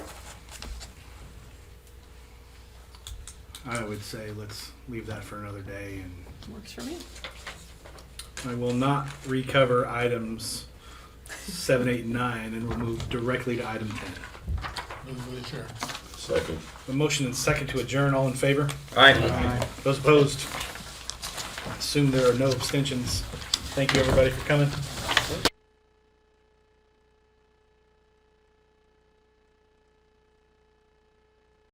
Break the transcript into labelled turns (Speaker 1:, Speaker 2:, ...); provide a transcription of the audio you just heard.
Speaker 1: I would say let's leave that for another day and
Speaker 2: Works for me.
Speaker 1: I will not recover items seven, eight, and nine, and we'll move directly to item ten.
Speaker 3: Move with adjourn.
Speaker 4: Second.
Speaker 1: A motion and second to adjourn, all in favor?
Speaker 4: Aye.
Speaker 1: Those opposed? Assume there are no abstentions. Thank you, everybody, for coming.